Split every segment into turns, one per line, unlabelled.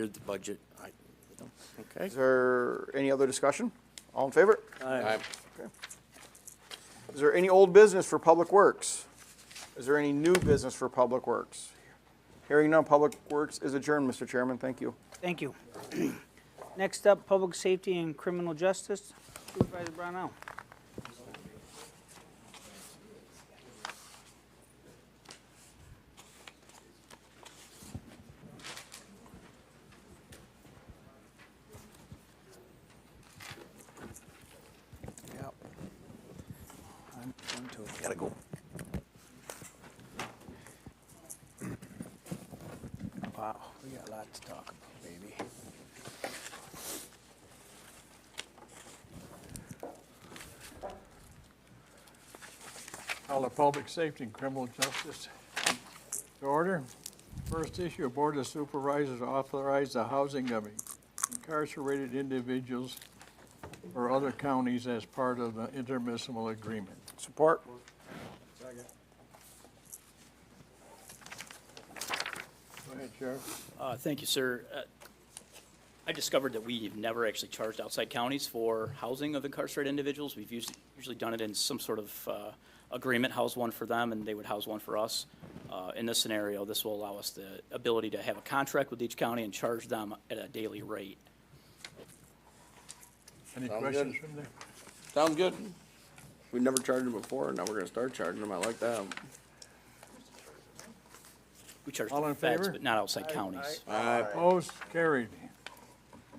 Here's the budget. I- Okay.
Is there any other discussion? All in favor?
Aye.
Is there any old business for Public Works? Is there any new business for Public Works? Hearing none, Public Works is adjourned, Mr. Chairman, thank you.
Thank you. Next up, Public Safety and Criminal Justice, Supervisor Brownell.
Gotta go.
Wow, we got a lot to talk about, baby. Call the Public Safety and Criminal Justice to order. First issue, Board of Supervisors authorize the housing of incarcerated individuals or other counties as part of the intermunicipal agreement.
Support?
Go ahead, Sheriff.
Uh, Thank you, sir. Uh, I discovered that we've never actually charged outside counties for housing of incarcerated individuals. We've usually, usually done it in some sort of uh, agreement, house one for them, and they would house one for us. Uh, In this scenario, this will allow us the ability to have a contract with each county and charge them at a daily rate.
Any
Sounds
questions
good.
from there?
Sounds good. We've never charged them before, now we're gonna start charging them. I like that.
We charge
All in
feds,
favor?
but not outside counties.
Aye.
Opposed, carried.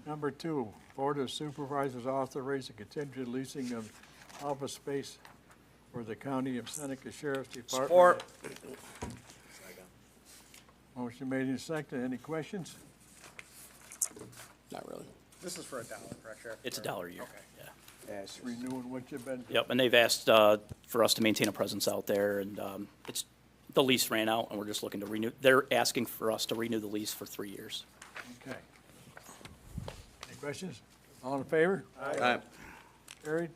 Number two, Board of Supervisors authorize the contingent leasing of office space for the County of Seneca Sheriff's Department.
Support.
Motion made and seconded. Any questions?
Not really.
This is for a dollar, correct, Sheriff?
It's a dollar a year. yeah.
Renewing what you've been.
Yep, and they've asked uh, for us to maintain a presence out there, and um, it's, the lease ran out, and we're just looking to renew, they're asking for us to renew the lease for three years.
Okay. Any questions? All in favor?
Aye.
Carried.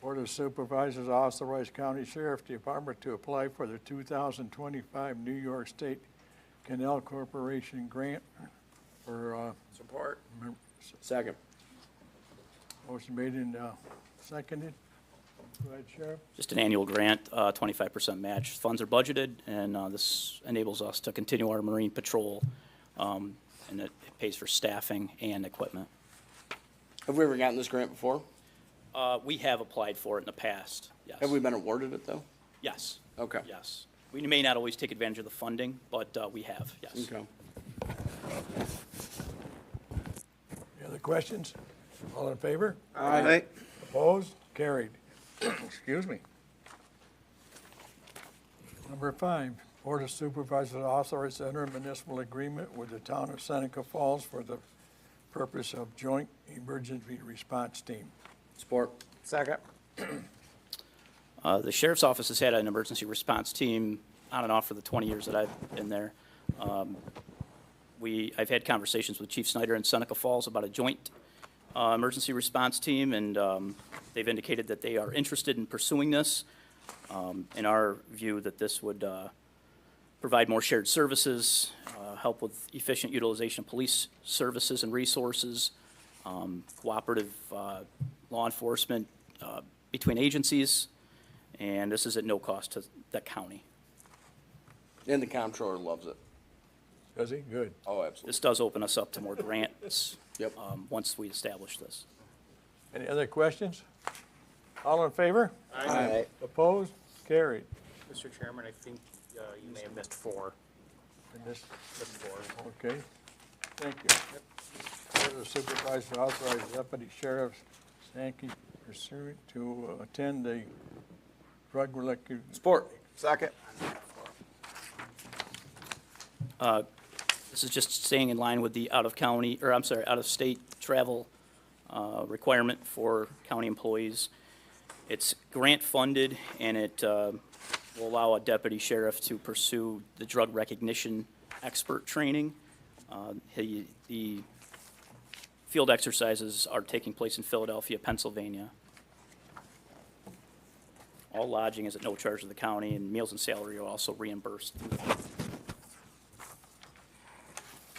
Board of Supervisors authorized County Sheriff Department to apply for the 2025 New York State Canal Corporation Grant for, uh,
Support.
mem-
Second.
motion made and uh, seconded. Go ahead, Sheriff.
Just an annual grant, uh, 25% match. Funds are budgeted, and uh, this enables us to continue our marine patrol, um, and it it pays for staffing and equipment.
Have we ever gotten this grant before?
Uh, We have applied for it in the past, yes.
Have we been awarded it, though?
Yes.
Okay.
Yes. We may not always take advantage of the funding, but uh, we have, yes.
Okay.
Any other questions? All in favor?
Aye.
Opposed? Carried. Excuse me. Number five, Board of Supervisors authorized intermunicipal agreement with the town of Seneca Falls for the purpose of joint emergency response team.
Support.
Second?
Uh, The sheriff's office has had an emergency response team on and off for the 20 years that I've been there. Um, We, I've had conversations with Chief Snyder in Seneca Falls about a joint uh, emergency response team, and um, they've indicated that they are interested in pursuing this. Um, In our view, that this would uh, provide more shared services, uh, help with efficient utilization of police services and resources, um, cooperative uh, law enforcement uh, between agencies, and this is at no cost to the county.
And the comptroller loves it.
Does he? Good.
Oh, absolutely.
This does open us up to more grants.
Yep.
um, Once we establish this.
Any other questions? All in favor?
Aye.
Opposed? Carried.
Mr. Chairman, I think uh, you may have missed four.
And this-
Missed four.
Okay, thank you. Board of Supervisors authorized Deputy Sheriff Sankey pursuant to uh, attend the drug-related
Support? Second?
This is just staying in line with the out-of-county, or I'm sorry, out-of-state travel uh, requirement for county employees. It's grant-funded, and it uh, will allow a deputy sheriff to pursue the drug recognition expert training. Uh, he- The field exercises are taking place in Philadelphia, Pennsylvania. All lodging is at no charge to the county, and meals and salary are also reimbursed through the